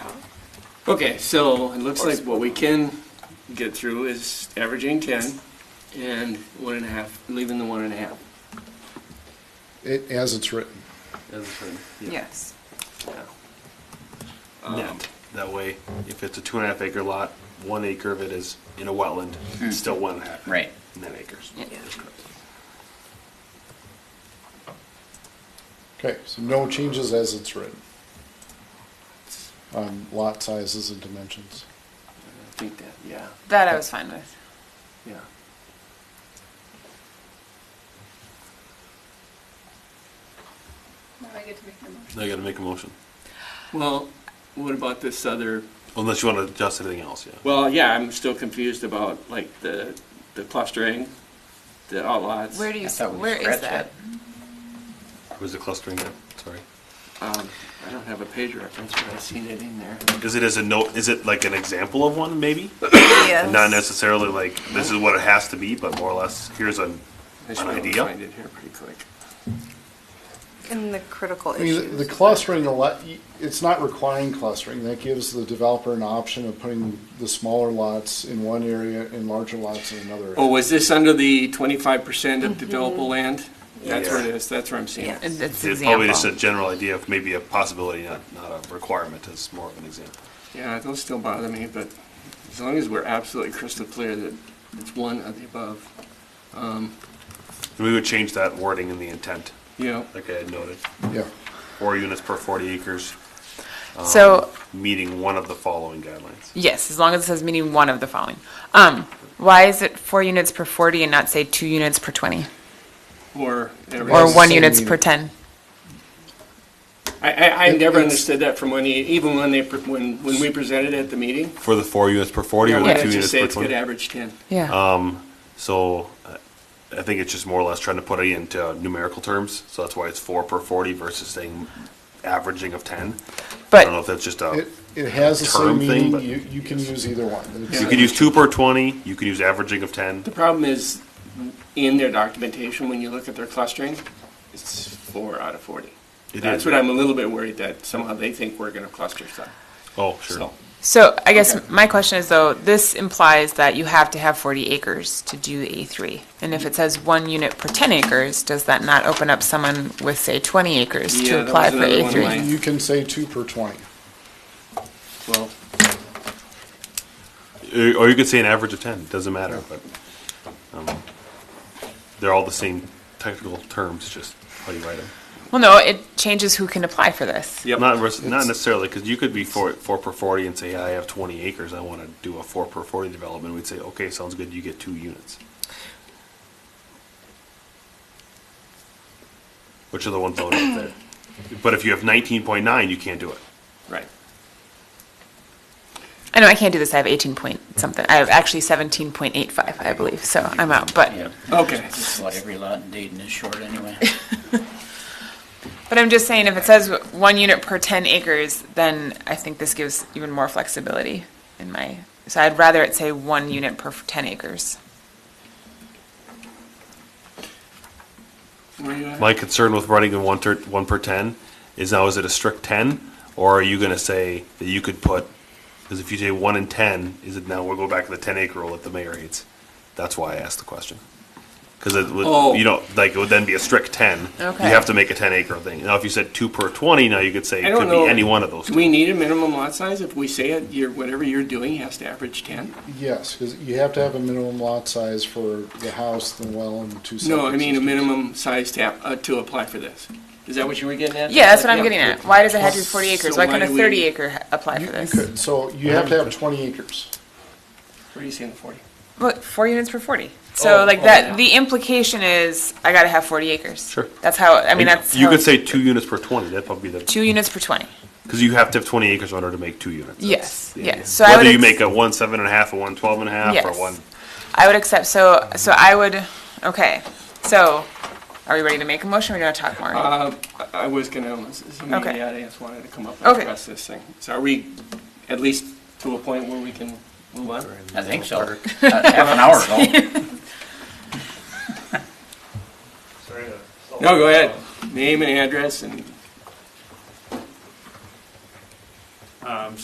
Okay, so it looks like what we can get through is averaging ten and one and a half, leaving the one and a half. It, as it's written. That's fine. Yes. net. That way, if it's a two and a half acre lot, one acre of it is in a wetland, Hmm. it's still one and a half. Right. Net acres. Yeah. That's correct. Okay, so no changes as it's written. On lot sizes and dimensions. I think that, yeah, That I was fine with. yeah. Now I get to make the motion. Now you gotta make a motion, Well, what about this other, unless you wanna adjust anything else, yeah. well, yeah, I'm still confused about like the, the clustering, the outlots. Where do you, I thought we where is scratched that? Where's the clustering at? Sorry. Um, I don't have a page reference, but I've seen it in there. Is it as a note, is it like an example of one, maybe? Yes. Not necessarily like, this is what it has to be, but more or less, here's a, I an should be able to idea. Find it here pretty quick. In the critical I mean, the- the issues. clustering, a lot- it's not requiring clustering, that gives the developer an option of putting the smaller lots in one area and larger lots in another. Oh, area. was this under the twenty-five percent Mm-hmm. of developable land? That's where it Yeah. is, that's where I'm seeing Yeah, it. it's it's it's probably just a example. general idea of maybe a possibility, not, not a requirement, it's more of an example. Yeah, those still bother me, but as long as we're absolutely crystal clear that it's one of the above, And we would change that wording in the intent, you know, like I had noted, Yeah, four units per forty acres, um, So, meeting one of the following guidelines. yes, as long as it says meaning one of the following. Um, why is it four units per forty and not say two units per twenty? or every. Or That's the one same units per unit. ten? I, I, I It- never it's- understood that from when, he- even when they, pre- when, when we presented at the meeting. For the four units per forty or Why the don't two you units say per it's gonna twenty? average ten? Yeah. So uh, I think it's just more or less trying to put it into numerical terms, so that's why it's four per forty versus saying averaging of ten. I don't know But, if that's just a, it, it has the same Term thing, meaning, but- you, you can use either one. It's- you could use two per twenty, you could use averaging of ten. The problem is, in their documentation, when you look at their clustering, it's four out of forty. It That's is. what I'm a little bit worried that somehow they think we're gonna cluster stuff, Oh, sure. so. so I guess Okay. my question is though, this implies that you have to have forty acres to do A three. And if it says one unit per ten acres, does that not open up someone with, say, twenty acres Yeah, to that apply was for another A one of three? mine. You can say two per twenty. Well, Uh, Or or you could say an average of ten, doesn't matter, but, um, they're all the same technical terms, just how you write them. Well, no, it changes who can apply for this. Not, vers- not necessarily, because you could be four, four per forty and say, I have twenty acres, I want to do a four per forty development, we'd say, okay, sounds good, you get two units. Which are the ones that are up there. But if you have nineteen point nine, you can't do it. right. I know I can't do this. I have 18 point something. I have actually 17.85, I believe. So I'm out. But Okay. Just like every lot in Dayton is short anyway. but I'm just saying, if it says one unit per 10 acres, then I think this gives even more flexibility in my. So I'd rather it say one unit per 10 acres. Where you at? My concern with running in one ter- one per ten is now, is it a strict ten? Or are you gonna say that you could put, because if you say one in ten, is it now, we'll go back to the ten acre rule that the mayor hates? That's why I asked the question. Because it Oh. would, you know, like, it would then be a strict ten. Okay. You have to make a ten acre thing. Now, if you said two per twenty, now you could say I it don't could know. be any one of those Do we two. need a minimum lot size? If we say it, you're, whatever you're doing has to average ten? Yes, because you have to have a minimum lot size for the house, the well, and the two septic No, I mean a systems. minimum size tap, uh, to apply for this. Is that what you were getting at? Yeah, that's what I'm getting at. Why does it have to be 40 So acres? Why why couldn't do a we- 30 acre ha- apply You for you this? could, so you have to have twenty acres. What are you saying, forty? Well, four units per 40. So Oh, like oh, that, yeah. the implication is I got to have 40 acres. Sure. That's how. I mean, that's You how could it's- say two units per twenty, that'd probably be the, two units per 20. because you have to have twenty acres in order to make two units. That's Yes, the yes. idea. So I Whether would you ex- make a one seven and a half, a one twelve and a half, or Yes. one I would accept, so, so I would, okay, so, are we ready to make a motion, or we gonna talk more? Uh, I- I was gonna, somebody in Okay. the audience wanted to come up and Okay. address this thing. So are we at least to a point where we can move on? I think so. Uh, Half an hour ago. No, go ahead. Name and address and